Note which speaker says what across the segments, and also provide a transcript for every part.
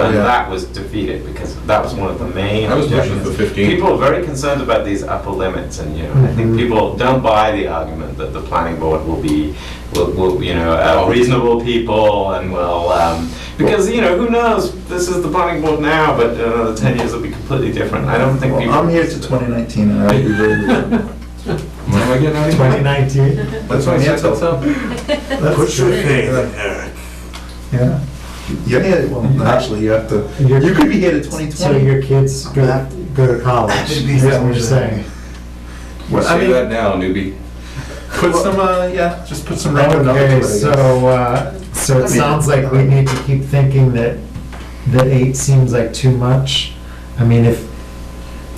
Speaker 1: And
Speaker 2: Yeah.
Speaker 1: that was defeated because that was one of the main
Speaker 2: I was pushing
Speaker 1: objections.
Speaker 2: for 15.
Speaker 1: People are very concerned about these upper limits and, you know, I think
Speaker 3: Mm-hmm.
Speaker 4: Mhm.
Speaker 1: people don't buy the argument that the planning board will be, will, will, you know, uh,
Speaker 2: Oh.
Speaker 1: reasonable people and will, um, because, you know, who knows? This is the planning board now, but in another 10 years it'll be completely different. I don't think
Speaker 2: Well,
Speaker 1: people.
Speaker 2: I'm here to 2019 and I'll be very.
Speaker 5: When am I getting out of here?
Speaker 4: 2019,
Speaker 2: That's my answer.
Speaker 4: that's true. Yeah,
Speaker 2: You're here, well, actually, you have to,
Speaker 4: Mm-hmm. You're-
Speaker 2: you could be here to
Speaker 4: so
Speaker 2: 2020.
Speaker 4: your kids go go to college, that's what you're saying.
Speaker 5: Well,
Speaker 2: I
Speaker 5: say
Speaker 2: mean-
Speaker 5: that now, newbie.
Speaker 2: Put some, uh, yeah, just put some rubber numbers.
Speaker 4: Okay,
Speaker 2: on it, I
Speaker 4: so,
Speaker 2: guess.
Speaker 4: uh, so it sounds like we need to keep thinking that, that eight seems like too much. I mean, if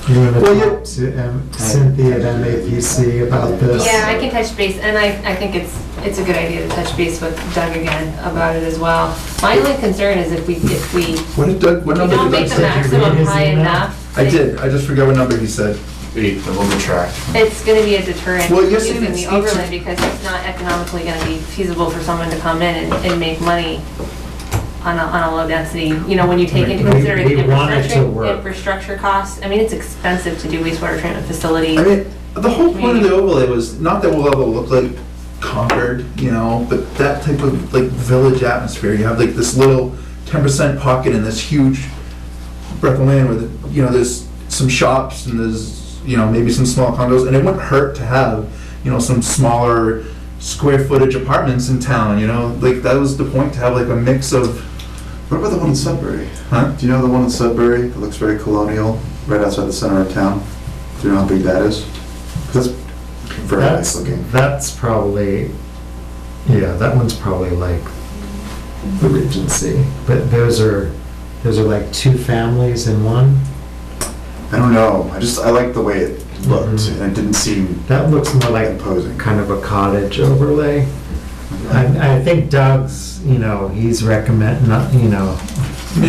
Speaker 4: you want
Speaker 2: Well, you-
Speaker 4: to talk to um, Cynthia at MAPC about this.
Speaker 6: Yeah, I can touch base, and I, I think it's, it's a good idea to touch base with Doug again about it as well. My only concern is if we, if we, if
Speaker 2: What did Doug, what
Speaker 6: we
Speaker 2: number
Speaker 6: don't
Speaker 2: did
Speaker 6: make
Speaker 2: Doug say?
Speaker 6: the
Speaker 4: max-
Speaker 6: maximum
Speaker 4: read his
Speaker 6: high
Speaker 4: email?
Speaker 6: enough.
Speaker 2: I did, I just forgot what number he said.
Speaker 5: Eight, then we'll retract.
Speaker 6: It's gonna be a deterrent
Speaker 2: Well, you're saying
Speaker 6: using the
Speaker 2: it's each-
Speaker 6: overlay because it's not economically gonna be feasible for someone to come in and, and make money on a, on a low density, you know, when you take into
Speaker 4: We-
Speaker 6: consideration
Speaker 4: we want it to
Speaker 6: infrastructure,
Speaker 4: work.
Speaker 6: infrastructure costs. I mean, it's expensive to do wastewater treatment facility.
Speaker 2: I mean, the whole point of the overlay was not that we'll ever look like Concord, you know, but that type of like village atmosphere. You have like this little ten percent pocket in this huge breath of land with, you know, there's some shops and there's, you know, maybe some small condos, and it wouldn't hurt to have, you know, some smaller square footage apartments in town, you know, like that was the point to have like a mix of,
Speaker 3: What about the one in Sudbury?
Speaker 2: huh?
Speaker 3: Do you know the one in Sudbury that looks very colonial, right outside the center of town? Do you know how big that is? 'Cause That's very nice
Speaker 4: That's,
Speaker 3: looking.
Speaker 4: that's probably, yeah, that one's probably like the Regency, but those are, those are like two families in one.
Speaker 3: I don't know, I just, I liked the way it looked,
Speaker 4: Mhm.
Speaker 3: and it didn't seem
Speaker 4: That looks more like
Speaker 3: imposing.
Speaker 4: kind of a cottage overlay. I, I think Doug's, you know, he's recommend, not, you know,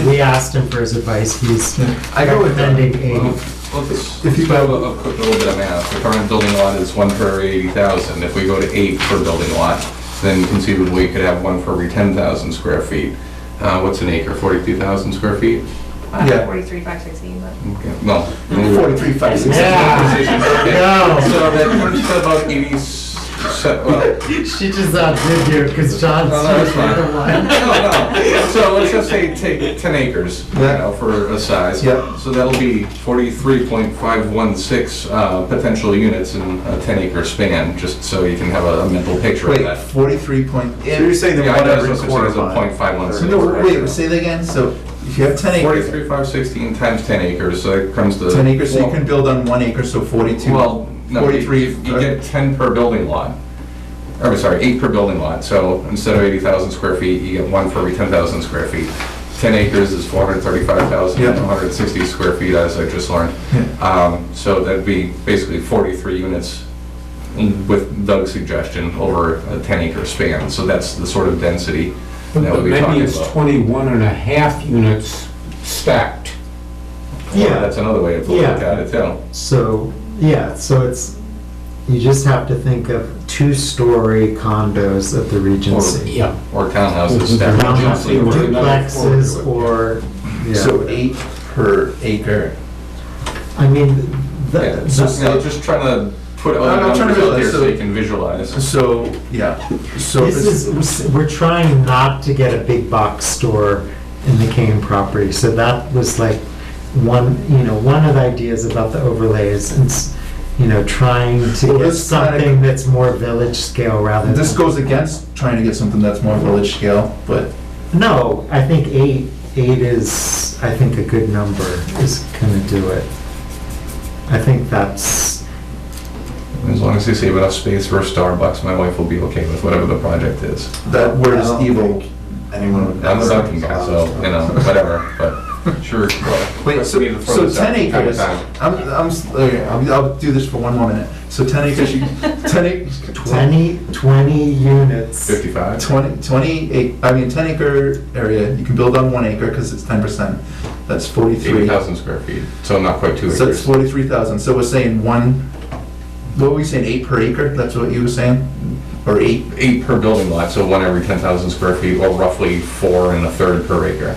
Speaker 4: we asked him for his advice, he's
Speaker 2: I go with that.
Speaker 4: recommending eighty.
Speaker 5: If you have a, a quick little bit of math, the current building lot is one for every eighty thousand. If we go to eight per building lot, then conceivably you could have one for every ten thousand square feet. Uh, what's an acre, forty-two thousand square feet?
Speaker 6: Uh,
Speaker 2: yeah.
Speaker 6: Forty-three, five sixteen, but.
Speaker 5: Okay, Well.
Speaker 2: Forty-three, five, six.
Speaker 4: Yeah.
Speaker 5: Precision, okay.
Speaker 4: No.
Speaker 5: So that works to about eighty, so, well,
Speaker 4: She just outdid you, because John's.
Speaker 5: No, no, that's fine.
Speaker 4: the one.
Speaker 5: No, no. So let's just say take ten acres, you
Speaker 2: Yeah.
Speaker 5: know, for a size.
Speaker 2: Yeah.
Speaker 5: So that'll be forty-three point five one six, uh, potential units in a ten acre span, just so you can have a mental picture of
Speaker 2: Wait,
Speaker 5: that.
Speaker 2: forty-three point.
Speaker 3: So you're saying that
Speaker 5: Yeah, I
Speaker 3: one
Speaker 5: know
Speaker 3: every
Speaker 5: it's listed
Speaker 3: quarter
Speaker 5: as a
Speaker 3: mile?
Speaker 5: 0.51
Speaker 3: Or-
Speaker 2: So no, wait, say that again, so if you have ten acres.
Speaker 5: Forty-three, five sixteen times ten acres, so that comes to.
Speaker 2: 10 acres, so you can build on one acre, so 42.
Speaker 5: Well, no, you-
Speaker 2: 43,
Speaker 5: you you
Speaker 2: uh,
Speaker 5: get ten per building lot. Or, sorry, eight per building lot, so instead of eighty thousand square feet, you get one for every ten thousand square feet. Ten acres is four hundred thirty-five thousand,
Speaker 2: Yeah.
Speaker 5: one hundred sixty square feet, as I just learned.
Speaker 2: Yeah.
Speaker 5: Um, so that'd be basically forty-three units in- with Doug's suggestion over a ten acre span, so that's the sort of density that
Speaker 7: But
Speaker 5: we'd be
Speaker 7: Maybe
Speaker 5: talking
Speaker 7: it's
Speaker 5: about.
Speaker 7: 21 and a half units stacked.
Speaker 5: Well, That's another way to look
Speaker 4: Yeah.
Speaker 5: at it, too.
Speaker 4: So, yeah, so it's, you just have to think of two-story condos at the Regency.
Speaker 7: Yeah.
Speaker 5: Or townhouses stacked.
Speaker 4: Townhouses,
Speaker 7: Or another
Speaker 4: Duplexes or,
Speaker 2: So
Speaker 4: yeah,
Speaker 2: eight per acre.
Speaker 4: I mean,
Speaker 5: Yeah,
Speaker 4: that,
Speaker 5: just, you know, just trying to put
Speaker 2: I'm
Speaker 5: other
Speaker 2: trying
Speaker 5: numbers
Speaker 2: to
Speaker 5: out
Speaker 2: visualize,
Speaker 5: there
Speaker 2: so-
Speaker 5: so you can visualize.
Speaker 2: So, yeah, so
Speaker 4: This
Speaker 2: this,
Speaker 4: is, we're trying not to get a big box store in the Kane property, so that was like one, you know, one of the ideas about the overlays, and, s- you know, trying
Speaker 2: Well,
Speaker 4: to get
Speaker 2: this kinda-
Speaker 4: something that's more village scale rather than.
Speaker 2: this goes against trying to get something that's more village scale, but
Speaker 4: No, I think eight, eight is, I think a good number is gonna do it. I think that's,
Speaker 5: As long as you save enough space for a Starbucks, my wife will be okay with whatever the project is.
Speaker 2: that word
Speaker 3: I
Speaker 2: is
Speaker 3: don't
Speaker 2: evil.
Speaker 3: think Anyone would.
Speaker 5: I'm a Dunkin' guy, so, you know, whatever, but sure.
Speaker 2: Wait, so, so 10 acres, I'm, I'm, s- okay, I'm- I'll do this for one more minute. So 10 acres, you, 10 acres,
Speaker 4: 20, 20 units.
Speaker 5: Fifty-five?
Speaker 2: 20, 20, ac- I mean, 10 acre area, you can build on one acre because it's 10%. That's 43.
Speaker 5: Eighty thousand square feet, so not quite two
Speaker 2: So it's
Speaker 5: acres.
Speaker 2: forty-three thousand, so we're saying one, what were we saying, eight per acre, that's what you were saying? Or eight,
Speaker 5: Eight per building lot, so one every ten thousand square feet, or roughly four and a third per acre.